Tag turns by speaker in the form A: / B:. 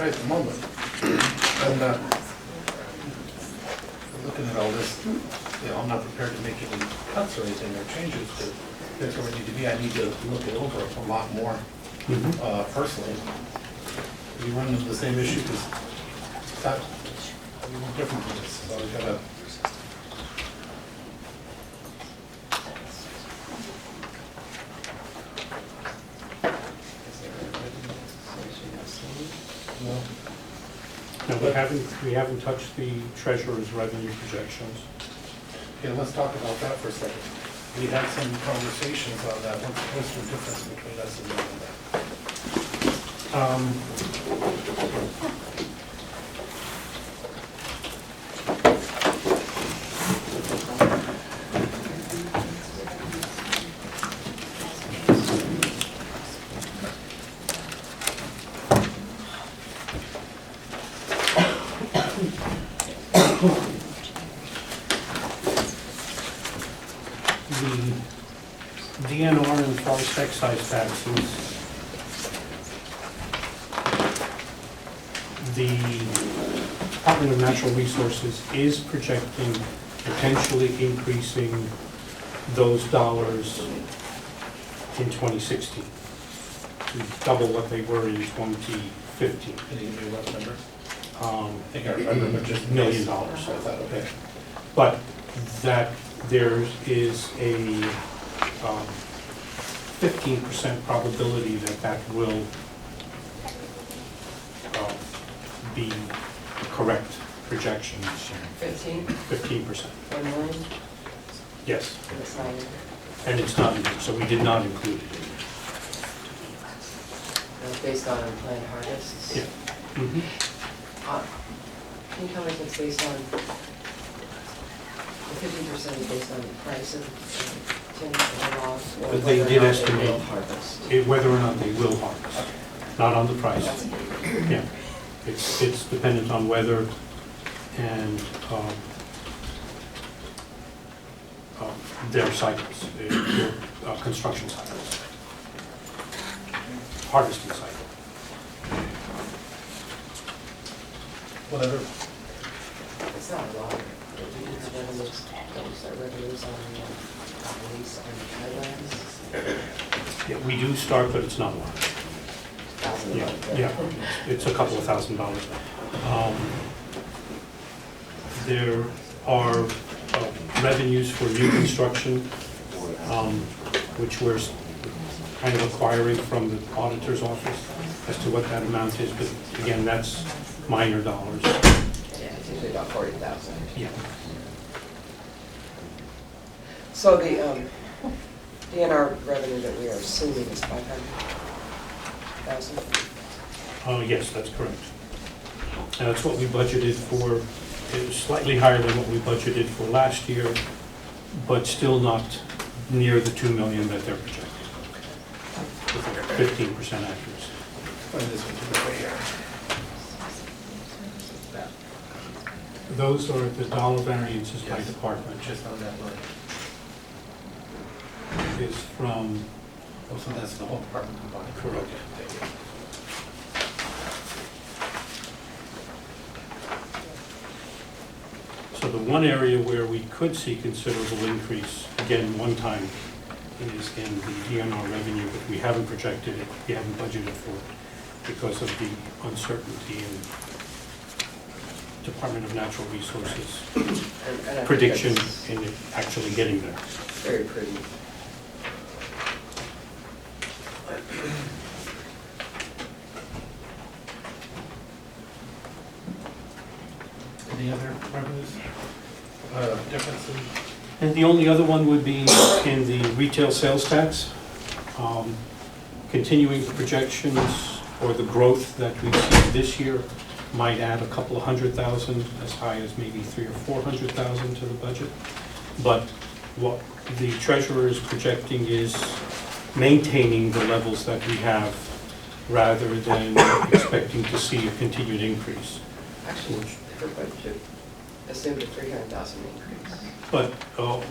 A: right at the moment. And, uh, looking at all this, you know, I'm not prepared to make any cuts or anything or changes to, that's where I need to be. I need to look it over a lot more, uh, personally. We run into the same issue, because it's not, a little different from this, so we gotta, you know,
B: No, we haven't, we haven't touched the treasurer's revenue projections.
A: Okay, let's talk about that for a second. We had some conversations on that, what's, what's the difference between us and uh, them and that?
B: Um, The DNR and forest excise taxes the Department of Natural Resources is projecting potentially increasing those dollars in 2016, to double what they were in 2015,
A: Can you give me a rough number?
B: um,
A: I think I remember, but just.
B: million dollars.
A: So I thought, okay,
B: But that there is a um, 15% probability that that will um, be correct projection this year.
C: Fifteen,
B: Fifteen percent,
C: one million,
B: yes,
C: that's not even,
B: and it's not, in there, so we did not include it.
C: that's uh, based on unplanned harvests.
B: Yeah. in there.
C: Uh, Can you tell us it's based on, the fifty percent is based on the price of the tin or logs? or
B: But they
C: whether or
B: did
C: not
B: estimate-
C: will Harvest.
B: It- Whether or not they will harvest, not on the price, yeah. It's, it's dependent on weather and, um, um, their cycles, eh, their uh, construction cycles. Harvesting cycle.
A: whatever,
C: It's not a lot. It's revenues, those are revenues on, uh, lease on wetlands,
B: Yeah, we do start, but it's not a lot.
C: thousand
B: Yeah,
C: dollars.
B: yeah, it's a couple of thousand dollars. Um, There are uh, revenues for new construction, um, which we're s- kind of acquiring from the auditor's office as to what that amount is, but again, that's minor dollars.
C: Yeah, it's usually about forty thousand.
B: Yeah,
C: So the, um, DNR revenue that we are assuming is five hundred thousand?
B: Uh, yes, that's correct. And That's what we budgeted for, it was slightly higher than what we budgeted for last year, but still not near the 2 million that they're projecting. Fifteen percent accuracy.
A: find this one right here. That,
B: Those are the dollar variances by department,
A: just on that line.
B: which is from,
A: Oh, so that's the whole department combined.
B: Correct.
A: Okay, thank you.
B: so the one area where we could see considerable increase, again, one time, is in the DNR revenue, but we haven't projected it, we haven't budgeted for it because of the uncertainty in Department of Natural Resources
C: And- and I think
B: prediction
C: that's
B: in it actually getting there.
C: Very pretty.
A: Any other revenues? Uh, difference in,
B: And the only other one would be in the retail sales tax. Um, Continuing the projections or the growth that we see this year might add a couple of hundred thousand, as high as maybe three or four hundred thousand to the budget. But what the treasurer is projecting is maintaining the levels that we have rather than expecting to see a continued increase.
C: Actually, her budget assumed a three hundred thousand increase.
B: But uh,